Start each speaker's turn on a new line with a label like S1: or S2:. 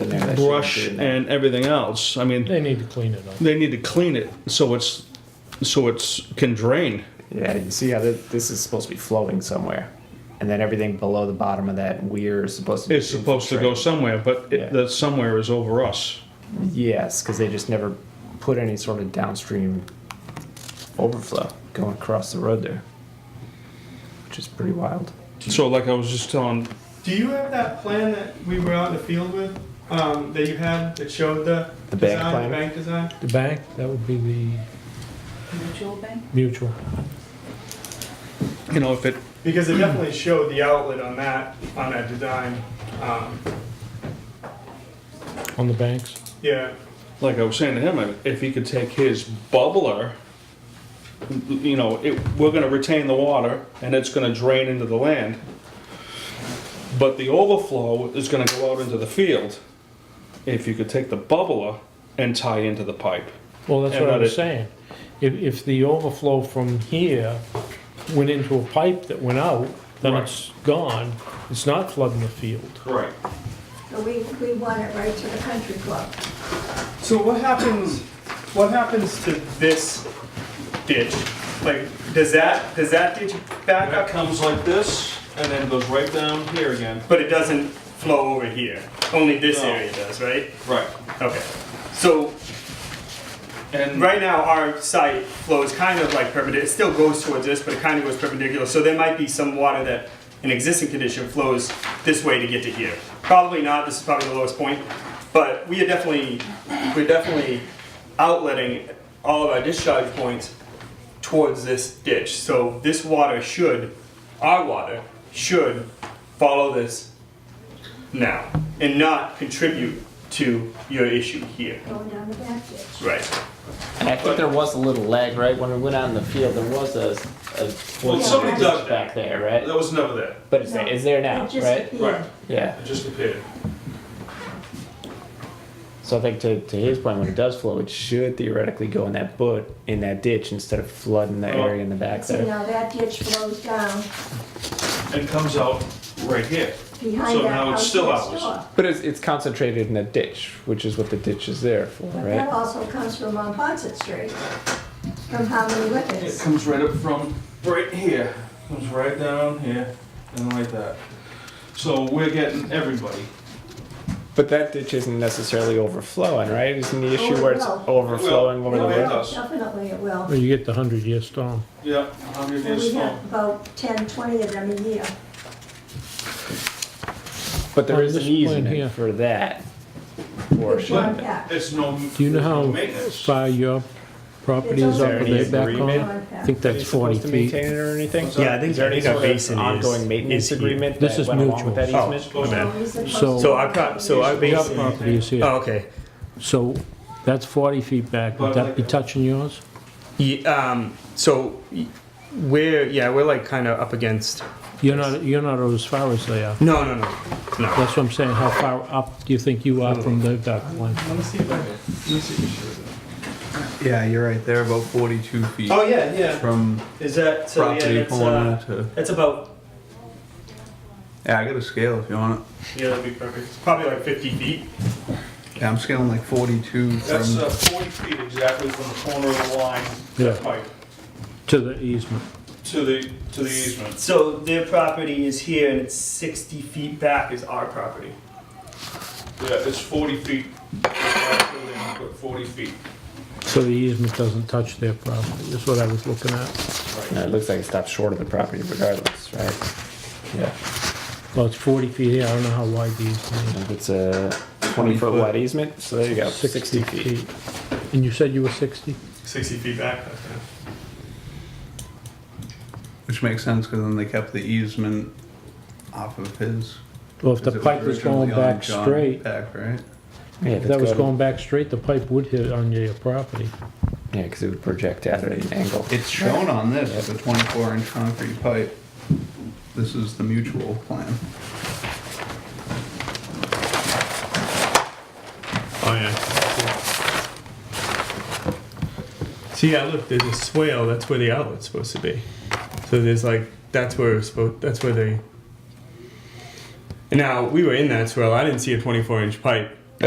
S1: in there that
S2: brush
S1: shouldn't be in there.
S2: and everything else. I mean,
S3: They need to clean it up.
S2: they need to clean it so it's so it's can drain.
S1: Yeah, you see how th- this is supposed to be flowing somewhere, and then everything below the bottom of that weir is supposed to.
S2: It's
S1: be
S2: supposed to go
S1: infiltrated.
S2: somewhere, but
S1: Yeah.
S2: it, that somewhere is over us.
S1: Yes, because they just never put any sort of downstream overflow going across the road there, which is pretty wild.
S2: So, like I was just telling,
S4: Do you have that plan that we were out in the field with, um, that you had that showed the
S1: The bank
S4: design,
S1: plan?
S4: the bank design?
S3: The bank, that would be the
S5: Mutual bank?
S3: mutual.
S2: you know, if it
S4: Because it definitely showed the outlet on that on that design. Um,
S3: On the banks?
S4: yeah,
S2: like I was saying to him, if he could take his bubbler, you know, it, we're going to retain the water and it's going to drain into the land. But the overflow is going to go out into the field. If you could take the bubbler and tie into the pipe,
S3: Well, that's
S2: And
S3: what I
S2: let
S3: was
S2: it-
S3: saying. If, if the overflow from here went into a pipe that went out, then
S2: Right.
S3: it's gone. It's not flooding the field.
S2: right?
S6: So we, we want it right to the country club.
S4: So what happens, what happens to this ditch? Like, does that, does that ditch back
S2: That
S4: up?
S2: comes like this, and then goes right down here again.
S4: But it doesn't flow over here, only this
S2: No.
S4: area does, right?
S2: Right.
S4: Okay, so
S2: And
S4: right now our site flows kind of like perpendicular, it still goes towards this, but it kind of goes perpendicular, so there might be some water that in existing condition flows this way to get to here. Probably not, this is probably the lowest point, but we are definitely, we're definitely outletting all of our discharge points towards this ditch. So this water should, our water should follow this now and not contribute to your issue here.
S6: going down the back ditch.
S4: Right.
S7: And I think there was a little lag, right? When we went out in the field, there was a, a
S2: Well,
S6: somebody
S2: dug
S7: back there, right?
S2: that was never there.
S7: But it's, it's there now,
S6: It just
S7: right?
S6: appeared.
S2: Right.
S7: Yeah.
S2: It just appeared.
S7: So I think to, to his point, when it does flow, it should theoretically go in that butt in that ditch instead of flooding the
S2: Oh.
S7: area in the back
S6: See,
S7: there.
S6: now that ditch flows down
S2: And comes out right here. So
S6: behind that
S2: now it's
S6: house
S2: still
S6: next
S2: ours.
S6: door.
S7: But it's, it's concentrated in that ditch, which is what the ditch is there for,
S6: But
S7: right?
S6: that also comes from on Ponset Street, from how many
S2: It
S6: Whippets.
S2: comes right up from right here. Comes right down here and like that. So we're getting everybody.
S7: But that ditch isn't necessarily overflowing, right? Isn't the issue
S6: Oh, it
S7: where it's
S6: will.
S7: overflowing
S2: It will.
S7: over the
S2: No, it
S7: road?
S2: will. does.
S6: Definitely it will.
S3: Well, you get the hundred year storm.
S2: Yeah, 100
S6: And
S2: years
S6: we
S2: strong.
S6: have about 10, 20 of them a year.
S7: But there
S3: On
S7: is an
S3: this plan here.
S7: easement for that
S6: It's
S7: portion.
S6: one back.
S2: It's no.
S3: Do you know
S2: there's no
S3: how
S2: maintenance.
S3: far your property
S6: It's
S3: is up
S6: over.
S3: with their
S7: Is there an
S3: back on?
S6: One
S7: agreement?
S3: I
S6: back.
S3: think
S7: Are
S3: that's
S7: you supposed
S3: forty
S7: to
S3: feet.
S7: maintain it or anything?
S4: Yeah, I think
S7: Is there any
S4: there's a
S7: sort of
S4: basin is-
S7: ongoing maintenance
S4: is here.
S7: agreement
S3: This
S7: that
S3: is
S7: went along
S3: mutual.
S7: with that
S4: Oh.
S7: easement?
S2: Oh, man.
S6: Always the
S3: So-
S6: post-
S4: So I've got- so I
S6: Usually
S3: Your
S4: basically-
S6: it's-
S3: property is
S4: Oh,
S3: here,
S4: okay.
S3: so that's forty feet back. Would that be touching yours?
S4: Ye- um, so y- we're yeah we're like kind of up against.
S3: You're not, you're not as far as they are.
S4: No, no, no, no.
S3: That's what I'm saying, how far up do you think you are from the dock line?
S8: Let me see if I can. Let me see if it. Yeah, you're right. They're about 42 feet
S4: Oh yeah, yeah.
S8: from
S4: Is that so?
S8: property
S4: Yeah, that's,
S8: corner
S4: uh,
S8: to.
S4: that's about.
S8: Yeah, I got a scale if you want it.
S4: Yeah, that'd be perfect. It's probably like 50 feet.
S8: Yeah, I'm scaling like 42
S2: That's
S8: from.
S2: uh, 40 feet exactly from the corner of the line
S3: Yeah.
S2: pipe
S3: To the easement.
S2: to the to the easement.
S4: So their property is here, and it's 60 feet back is our property.
S2: Yeah, it's 40 feet. But 40 feet.
S3: So the easement doesn't touch their property, is what I was looking at.
S7: No, it looks like it stops short of the property regardless, right?
S3: Well, it's forty feet here, I don't know how wide the easement
S7: If It's a
S8: 20
S7: 20
S8: foot.
S7: foot wide easement, so there you go,
S3: is.
S7: 60 feet.
S3: And you said you were sixty?
S4: 60 feet back.
S8: Which makes sense because then they kept the easement off of his.
S3: Well, if
S8: 'cause
S3: the
S8: it was
S3: pipe was
S8: originally
S3: going back
S8: on John
S3: straight,
S8: Peck, right?
S7: Yeah,
S3: if
S7: if
S3: that
S7: it's
S3: was
S7: going-
S3: going back straight, the pipe would hit on your property.
S7: Yeah, because it would project out at an angle.
S8: It's shown on this, as a 24 inch concrete pipe. This is the mutual plan.
S4: Oh yeah. See, yeah, look, there's a swale. That's where the outlet's supposed to be. So there's like that's where it's supposed. That's where they. And now we were in that swale. I didn't see a 24 inch pipe.